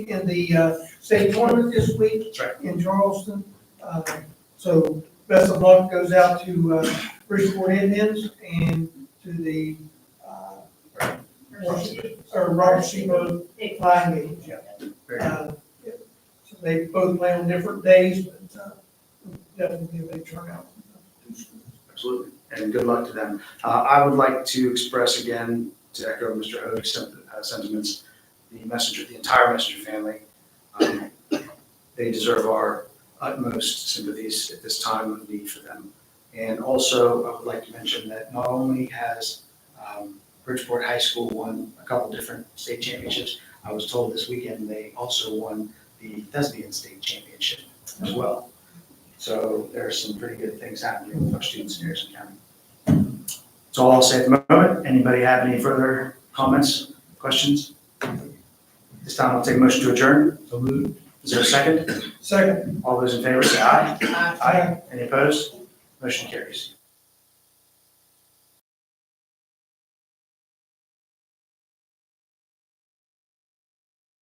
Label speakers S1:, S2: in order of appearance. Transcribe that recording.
S1: in the uh, state tournament this week
S2: That's right.
S1: in Charleston. Uh, So best of luck goes out to uh, Bridgeport Indians and to the, uh, or Robert Sebo Flying Eagles. yeah.
S2: Very good.
S1: Uh, yeah. So They both play on different days, but uh, definitely a big turnout.
S2: Absolutely, and good luck to them. Uh, I would like to express again, to echo Mr. Hode's sen- uh, sentiments, the messenger, the entire messenger family. Um, They deserve our utmost sympathies at this time of need for them. And also, I would like to mention that not only has um, Bridgeport High School won a couple different state championships, I was told this weekend they also won the Thesbian State Championship as well. So there are some pretty good things happening with our students in Harrison County. That's all I'll say at the moment. Anybody have any further comments, questions? This time I'll take a motion to adjourn.
S3: So moved.
S2: Is there a second?
S1: Second,
S2: All those in favor say aye.
S4: Aye.
S2: Any opposed? Motion carries.